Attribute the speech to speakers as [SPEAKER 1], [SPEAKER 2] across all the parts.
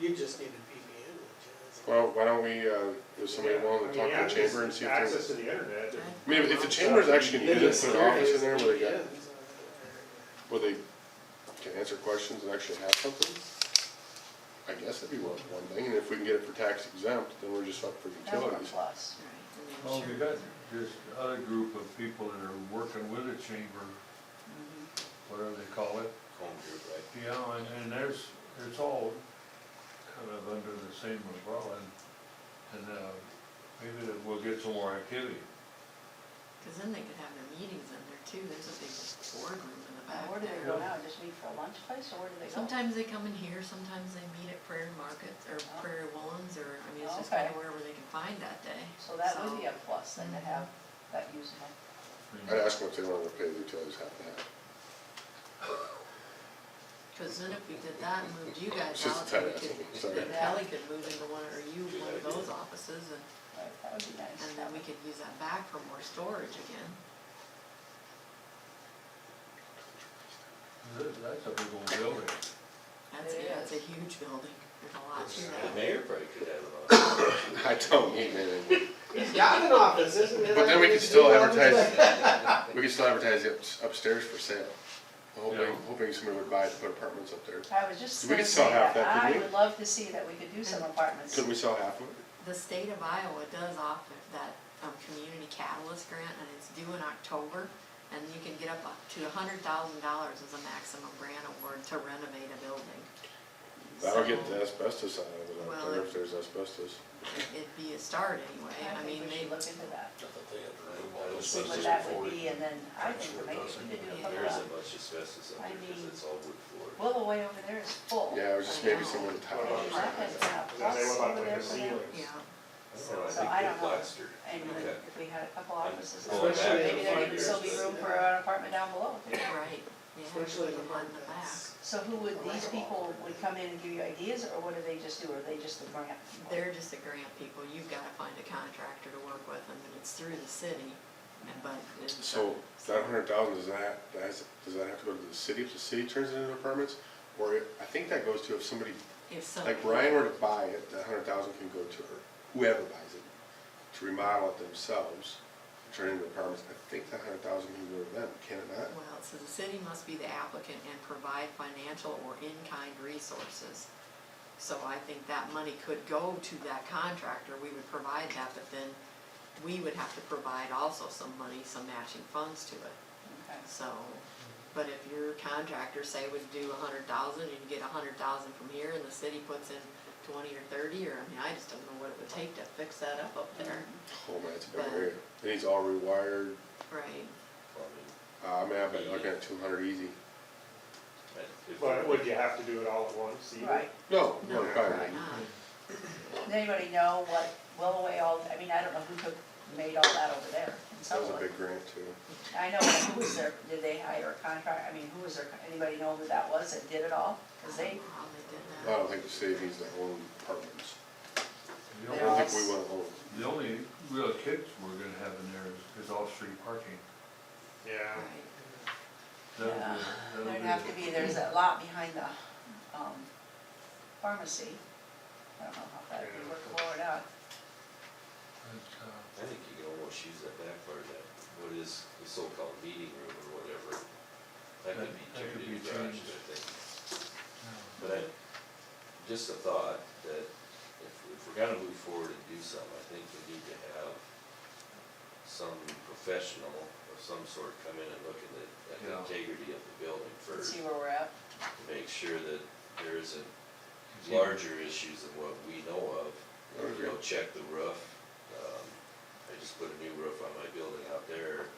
[SPEAKER 1] You just need a PPN, which is.
[SPEAKER 2] Well, why don't we, uh, is somebody willing to
[SPEAKER 3] Yeah, I
[SPEAKER 2] talk
[SPEAKER 3] mean,
[SPEAKER 2] to the
[SPEAKER 3] access-
[SPEAKER 2] chamber and see if
[SPEAKER 3] Access
[SPEAKER 2] there's,
[SPEAKER 3] to the internet. and-
[SPEAKER 2] I mean, if the chamber's actually gonna use it, put an office in there where they got, where they can answer questions and actually have something. I guess that'd be one, one thing, and if we can get it for tax exempt, then we're just up for
[SPEAKER 4] That's a
[SPEAKER 2] utilities.
[SPEAKER 4] plus.
[SPEAKER 5] Well, Oh, we got this other group of people that are working with the chamber,
[SPEAKER 6] Mm-hmm.
[SPEAKER 5] whatever they call it. Yeah, and, and there's, it's all kind of under the same umbrella, and, and, uh, maybe that we'll get some more activity.
[SPEAKER 7] Because then they could have their meetings in there too, there's a big boardroom in the
[SPEAKER 4] Now,
[SPEAKER 7] back
[SPEAKER 4] Where do they go
[SPEAKER 7] there.
[SPEAKER 4] now, just meet for a lunch place, or where do they go?
[SPEAKER 7] Sometimes they come in here, sometimes they meet at Prairie Markets or
[SPEAKER 4] Oh.
[SPEAKER 7] Prairie Woolens or, I mean, it's just kind of
[SPEAKER 4] Okay.
[SPEAKER 7] wherever they can find that day.
[SPEAKER 4] So that would be
[SPEAKER 7] So-
[SPEAKER 4] a plus, then to have that usable.
[SPEAKER 2] I'd ask them if they wanted to pay the utilities half and half.
[SPEAKER 7] Cause then if we did that and moved you guys
[SPEAKER 2] It's just
[SPEAKER 7] out,
[SPEAKER 2] a
[SPEAKER 7] then
[SPEAKER 2] tight
[SPEAKER 7] we
[SPEAKER 2] ass,
[SPEAKER 7] could,
[SPEAKER 2] sorry.
[SPEAKER 7] then Kelly could move into one, or you, one of those offices, and,
[SPEAKER 4] Right, that would be nice.
[SPEAKER 7] and then we could use that back for more storage again.
[SPEAKER 5] That- That's a big old building.
[SPEAKER 7] That's,
[SPEAKER 4] It
[SPEAKER 7] yeah, it's a
[SPEAKER 4] is.
[SPEAKER 7] huge building, there's a lot to
[SPEAKER 6] The
[SPEAKER 7] that.
[SPEAKER 6] mayor probably could have a lot.
[SPEAKER 2] I don't need anything,
[SPEAKER 1] He's got an office, isn't it?
[SPEAKER 2] but then we could still advertise, we could still advertise it ups- upstairs for sale. Hoping,
[SPEAKER 5] Yeah.
[SPEAKER 2] hoping somebody would buy it to put apartments up there.
[SPEAKER 4] I was just
[SPEAKER 2] We
[SPEAKER 4] gonna
[SPEAKER 2] could sell
[SPEAKER 4] say
[SPEAKER 2] half
[SPEAKER 4] that,
[SPEAKER 2] that,
[SPEAKER 4] I
[SPEAKER 2] couldn't we?
[SPEAKER 4] would love to see that we could do some apartments.
[SPEAKER 2] Couldn't we sell half of it?
[SPEAKER 7] The state of Iowa does offer that, um, community catalyst grant, and it's due in October, and you can get up uh, to a hundred thousand dollars as a maximum grant award to renovate a building.
[SPEAKER 2] That'll get
[SPEAKER 7] So-
[SPEAKER 2] the asbestos out of it out
[SPEAKER 7] Well,
[SPEAKER 2] there
[SPEAKER 7] it-
[SPEAKER 2] if there's asbestos.
[SPEAKER 7] it'd be a start anyway,
[SPEAKER 4] I
[SPEAKER 7] I
[SPEAKER 4] think
[SPEAKER 7] mean,
[SPEAKER 4] we
[SPEAKER 7] they,
[SPEAKER 4] should look into that,
[SPEAKER 6] I thought they had to remove all
[SPEAKER 4] see
[SPEAKER 6] asbestos
[SPEAKER 4] what that
[SPEAKER 6] before
[SPEAKER 4] would
[SPEAKER 6] we
[SPEAKER 4] be, and then I think
[SPEAKER 6] sure
[SPEAKER 4] maybe
[SPEAKER 6] does.
[SPEAKER 4] we could do a
[SPEAKER 6] There
[SPEAKER 4] couple
[SPEAKER 6] isn't
[SPEAKER 4] of,
[SPEAKER 6] much asbestos up
[SPEAKER 4] I
[SPEAKER 6] there because
[SPEAKER 4] mean-
[SPEAKER 6] it's all wood floor.
[SPEAKER 4] Willoway over there is full.
[SPEAKER 2] Yeah, it was just
[SPEAKER 7] I
[SPEAKER 2] maybe
[SPEAKER 7] know.
[SPEAKER 2] someone to tie
[SPEAKER 3] Well,
[SPEAKER 2] it
[SPEAKER 4] And
[SPEAKER 2] on or
[SPEAKER 4] Market's
[SPEAKER 2] something.
[SPEAKER 4] got
[SPEAKER 3] Is that they
[SPEAKER 4] plus
[SPEAKER 3] want like
[SPEAKER 4] over
[SPEAKER 3] the
[SPEAKER 4] there for them.
[SPEAKER 3] ceilings?
[SPEAKER 5] Oh,
[SPEAKER 7] yeah,
[SPEAKER 6] I
[SPEAKER 4] So I
[SPEAKER 6] don't know, I think
[SPEAKER 4] don't
[SPEAKER 6] they
[SPEAKER 4] know.
[SPEAKER 6] plastered.
[SPEAKER 4] And
[SPEAKER 6] Okay.
[SPEAKER 4] if we had a couple offices,
[SPEAKER 1] back
[SPEAKER 4] maybe
[SPEAKER 6] Going
[SPEAKER 1] to
[SPEAKER 4] there
[SPEAKER 1] five
[SPEAKER 4] could still be
[SPEAKER 6] years.
[SPEAKER 4] room for an apartment down below.
[SPEAKER 7] right, yeah,
[SPEAKER 1] Especially
[SPEAKER 7] the
[SPEAKER 1] the
[SPEAKER 7] one in the back.
[SPEAKER 1] ones
[SPEAKER 4] So who would, these people would come in and give you ideas, or what do they just do, or are they just the grant? people?
[SPEAKER 7] They're just the grant people, you've gotta find a contractor to work with them, and it's through the city, and but it's.
[SPEAKER 2] So that hundred thousand, does that, that's, does that have to go to the city if the city turns it into apartments? Or it- I think that goes to if somebody,
[SPEAKER 7] If some.
[SPEAKER 2] like Ryan were to buy it, that hundred thousand can go to her, whoever buys it, to remodel it themselves, turn it into apartments. I think that hundred thousand can go to them, can it not?
[SPEAKER 7] Well, so the city must be the applicant and provide financial or in-kind resources. So I think that money could go to that contractor, we would provide that, but then we would have to provide also some money, some matching funds to it.
[SPEAKER 4] Okay.
[SPEAKER 7] So, but if your contractor say would do a hundred thousand, and you get a hundred thousand from here, and the city puts in twenty or thirty, or, I mean, I just don't know what it would take to fix that up up there,
[SPEAKER 2] Oh man, it's a big area. It needs all rewired,
[SPEAKER 7] right?
[SPEAKER 6] Plumbing.
[SPEAKER 2] uh, I mean, I've been looking at two hundred easy.
[SPEAKER 6] And if-
[SPEAKER 3] But would you have to do it all at once? either?
[SPEAKER 4] Right,
[SPEAKER 2] No,
[SPEAKER 7] No,
[SPEAKER 2] no,
[SPEAKER 7] probably
[SPEAKER 2] probably. not.
[SPEAKER 7] not.
[SPEAKER 4] does anybody know what Willoway all, I mean, I don't know who took, made all that over there in
[SPEAKER 2] That was
[SPEAKER 7] Oh.
[SPEAKER 4] some
[SPEAKER 2] a
[SPEAKER 4] way.
[SPEAKER 2] big grant too.
[SPEAKER 4] I know, but who was their, did they hire a contract, I mean, who was their, anybody know who that was that did it all? Cause
[SPEAKER 7] I
[SPEAKER 4] they,
[SPEAKER 7] don't know how they did
[SPEAKER 2] I
[SPEAKER 7] that.
[SPEAKER 2] don't think the city needs their own apartments.
[SPEAKER 5] The
[SPEAKER 2] I
[SPEAKER 4] They're
[SPEAKER 2] don't
[SPEAKER 5] only-
[SPEAKER 2] think we want to own.
[SPEAKER 5] The only real kicks we're gonna have in there is, is off-street parking.
[SPEAKER 3] Yeah.
[SPEAKER 7] Right.
[SPEAKER 5] That'll be-
[SPEAKER 4] Yeah,
[SPEAKER 5] that'll
[SPEAKER 4] there'd
[SPEAKER 5] be-
[SPEAKER 4] have to be, there's that lot behind the, um, pharmacy. I don't know how that'd be workable or not.
[SPEAKER 5] But, uh,
[SPEAKER 6] I think you can almost use that back part of that, what is the so-called meeting room or whatever. That could be
[SPEAKER 5] That- that could
[SPEAKER 6] turned
[SPEAKER 5] be
[SPEAKER 6] into garage,
[SPEAKER 5] changed.
[SPEAKER 6] I think.
[SPEAKER 5] yeah.
[SPEAKER 6] But I, just a thought, that if, if we're gonna move forward and do something, I think we need to have some professional of some sort come in and look at the, at the
[SPEAKER 5] Yeah.
[SPEAKER 6] integrity of the building
[SPEAKER 4] Let's
[SPEAKER 6] first,
[SPEAKER 4] see where we're at.
[SPEAKER 6] to make sure that there isn't
[SPEAKER 5] It's even-
[SPEAKER 6] larger issues than what we know of.
[SPEAKER 2] I agree.
[SPEAKER 6] You know, check the roof, um, I just put a new roof on my building out there,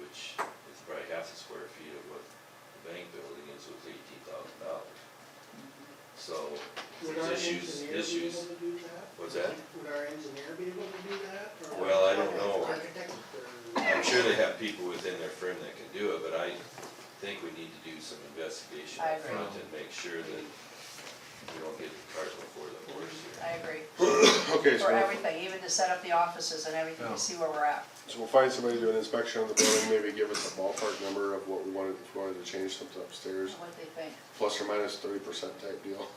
[SPEAKER 6] which is probably half the square feet of what the bank building is, was eighteen thousand dollars. So,
[SPEAKER 1] Would
[SPEAKER 6] there's
[SPEAKER 1] our
[SPEAKER 6] issues,
[SPEAKER 1] engineer be able
[SPEAKER 6] issues,
[SPEAKER 1] to do that?
[SPEAKER 6] what's that?
[SPEAKER 1] Would our engineer be able to do that? or-
[SPEAKER 6] Well, I don't know.
[SPEAKER 1] Architect or-
[SPEAKER 6] I'm sure they have people within their firm that can do it, but I think we need to do some investigation
[SPEAKER 4] I
[SPEAKER 6] up
[SPEAKER 4] agree.
[SPEAKER 6] front and make sure that we don't get the cart before the horse
[SPEAKER 4] I
[SPEAKER 6] here.
[SPEAKER 4] agree.
[SPEAKER 2] Okay, so
[SPEAKER 4] For
[SPEAKER 2] we'll,
[SPEAKER 4] everything, even to set up the offices and everything,
[SPEAKER 2] Oh.
[SPEAKER 5] Yeah.
[SPEAKER 4] to see where we're at.
[SPEAKER 2] so we'll find somebody to do an inspection on the building, maybe give us a ballpark number of what we wanted, if we wanted to change something upstairs,
[SPEAKER 4] What they think.
[SPEAKER 2] plus or minus thirty percent type deal.